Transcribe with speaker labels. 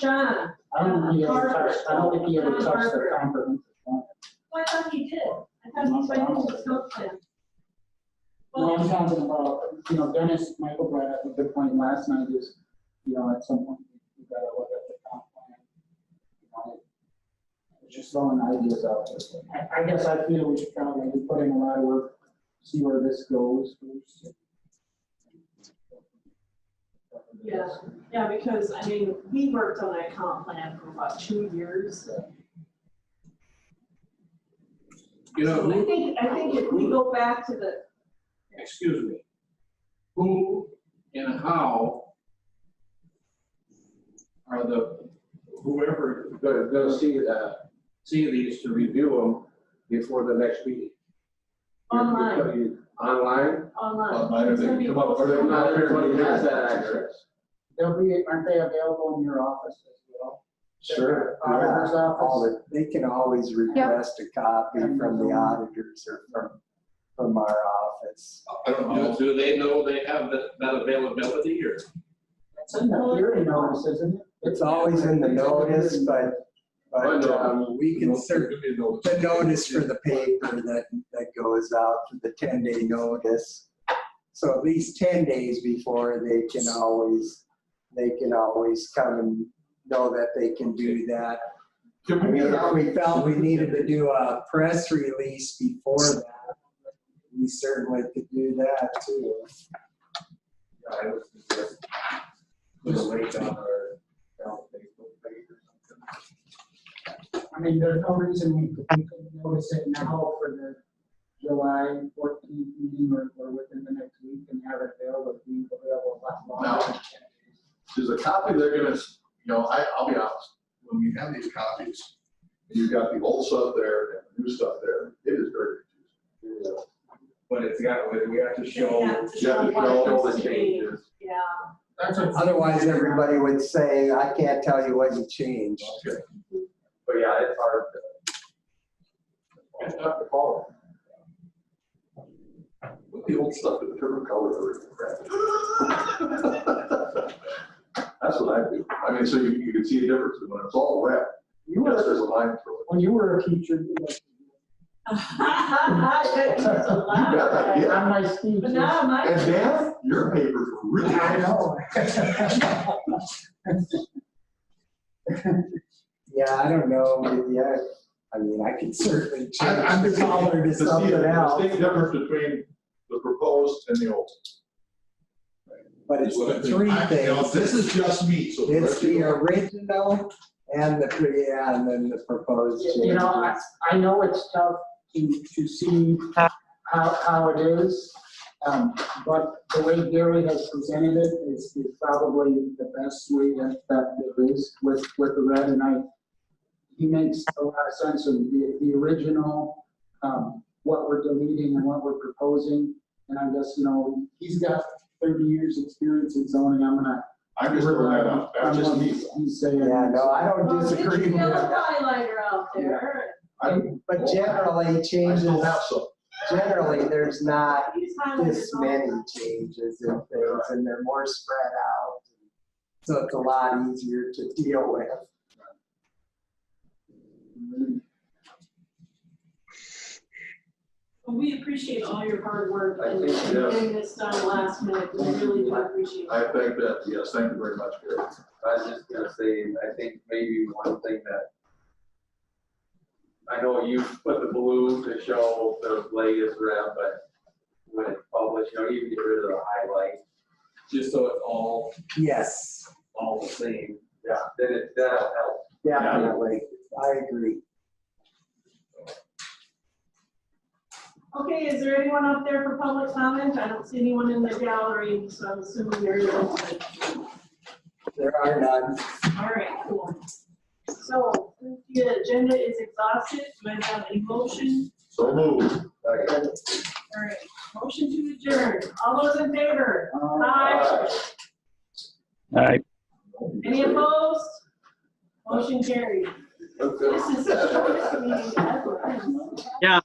Speaker 1: John,
Speaker 2: I don't think he ever touched, I don't think he ever touched the comprehensive plan.
Speaker 1: well, I thought he did. I thought he went into the snow plan.
Speaker 2: No, I'm
Speaker 1: Well,
Speaker 2: talking about, you know, Dennis, Michael brought up a good point last night is, you know, at some point, you gotta look at the comp plan. You know, It's just throwing ideas out there. I, I guess I feel we should probably put in a lot of work, see where this goes. first.
Speaker 1: Yeah. yeah, because, I mean, we worked on that comp plan for about two years.
Speaker 3: You know,
Speaker 1: So I
Speaker 3: who,
Speaker 1: think, I think if we go back to the,
Speaker 3: excuse me, who and how are the, whoever,
Speaker 4: Gonna, gonna see, uh, see these to review them before the next meeting.
Speaker 1: Online.
Speaker 4: Online?
Speaker 1: online.
Speaker 5: Online, or they can come up, or they can
Speaker 4: Not
Speaker 5: not
Speaker 4: everybody has that access.
Speaker 2: They'll be, aren't they available in your office as well?
Speaker 4: Sure.
Speaker 6: Uh,
Speaker 2: Auditor's
Speaker 6: all
Speaker 2: office?
Speaker 6: that- they can always request a copy from the auditors or from, from our office.
Speaker 5: I don't know.
Speaker 3: do, do they know they have that, that availability or?
Speaker 2: It's in the hearing notice, isn't it?
Speaker 6: It's always in the notice, but, but um, we can certainly, the notice for the paper that, that goes out, the ten day notice. So at least ten days before, they can always, they can always come and know that they can do that. I mean, if we felt we needed to do a press release before that, we certainly could do that too.
Speaker 4: I was just- Put a link on our, on Facebook page or something.
Speaker 2: I mean, there's no reason we could- we couldn't notice it now for the July fourteenth meeting or, or within the next week and have it available, be available a lot longer. than 10 days.
Speaker 5: There's a copy they're gonna, s- you know, I, I'll be honest, when we have these copies, you've got the old stuff there and the new stuff there, it is very confusing.
Speaker 4: But it's got, we- we have to show.
Speaker 1: They have to
Speaker 5: You have
Speaker 1: show
Speaker 5: to
Speaker 1: what
Speaker 5: show all
Speaker 1: it's
Speaker 5: the
Speaker 1: to be.
Speaker 5: changes.
Speaker 1: Yeah,
Speaker 2: That's what-
Speaker 6: Otherwise, everybody would say, I can't tell you what you changed.
Speaker 4: But yeah, it's hard to. It's tough to follow.
Speaker 5: Put The old stuff in the different color or crap. That's what I do. I mean, so you, you can see the difference when it's all red.
Speaker 2: You
Speaker 5: Yes,
Speaker 2: were,
Speaker 5: there's a line through it.
Speaker 2: when you were a teacher, you like,
Speaker 1: That's a lot, right?
Speaker 5: Yeah.
Speaker 2: on my speeches.
Speaker 1: But now my.
Speaker 5: And Dan, your papers were really
Speaker 2: I
Speaker 5: nice.
Speaker 2: know.
Speaker 6: Yeah, I don't know, yeah, I mean, I could certainly
Speaker 5: I- I'm
Speaker 6: change the
Speaker 5: just saying,
Speaker 6: color to
Speaker 5: to see
Speaker 6: something
Speaker 5: the
Speaker 6: else,
Speaker 5: distinct difference between the proposed and the old.
Speaker 6: but it's the three
Speaker 5: I- you know,
Speaker 6: things.
Speaker 5: This is just me, so.
Speaker 6: It's the original and the, pre- yeah, and then the proposed
Speaker 2: You know, I,
Speaker 6: changes.
Speaker 2: I know it's tough to, to see how, how it is, um, but the way Gary has presented it is, is probably the best way that, that there is with, with the red, and I, he makes a lot of sense of the, the original, um, what we're deleting and what we're proposing, and I guess, you know, he's got thirty years' experience in zoning, I'm gonna.
Speaker 5: I'm just throwing that out, that's just
Speaker 2: I'm-
Speaker 5: me.
Speaker 2: He's saying.
Speaker 6: Yeah, no, I don't
Speaker 1: Well, Oh, get your
Speaker 6: disagree with
Speaker 1: yellow
Speaker 6: that,
Speaker 1: highlighter out there.
Speaker 5: I'm-
Speaker 6: but generally
Speaker 5: I
Speaker 6: changes,
Speaker 5: still have some.
Speaker 6: generally, there's not
Speaker 1: Use highlighters
Speaker 6: this
Speaker 1: all
Speaker 6: many
Speaker 1: the time.
Speaker 6: changes and things, and they're more spread out. So it's a lot easier to deal with.
Speaker 1: Well, We appreciate all your hard work
Speaker 5: I
Speaker 1: and
Speaker 5: think, yes.
Speaker 1: getting this done last minute. We really do appreciate
Speaker 5: I
Speaker 1: it.
Speaker 5: think that, yes, thank you very much, Gary.
Speaker 4: I was just gonna say, I think maybe one thing that I know you put the blue to show the latest rep, but when it's published, you know, you can get rid of the highlight, just so it's all,
Speaker 6: Yes,
Speaker 4: all the same. Yeah. Then it, that'll help.
Speaker 6: definitely, I agree.
Speaker 1: Okay, is there anyone up there for public comment? I don't see anyone in the gallery, so I'm assuming there isn't.
Speaker 6: There are none.
Speaker 1: All right, cool. So since the agenda is exhausted, do I have a motion?
Speaker 5: So move.
Speaker 4: Okay.
Speaker 1: All right, motion to adjourn. All those in favor?
Speaker 2: Um,
Speaker 1: Aye.
Speaker 7: All right.
Speaker 1: Any opposed? Motion carried.
Speaker 4: Okay.
Speaker 1: This is the shortest meeting ever.
Speaker 7: Yeah.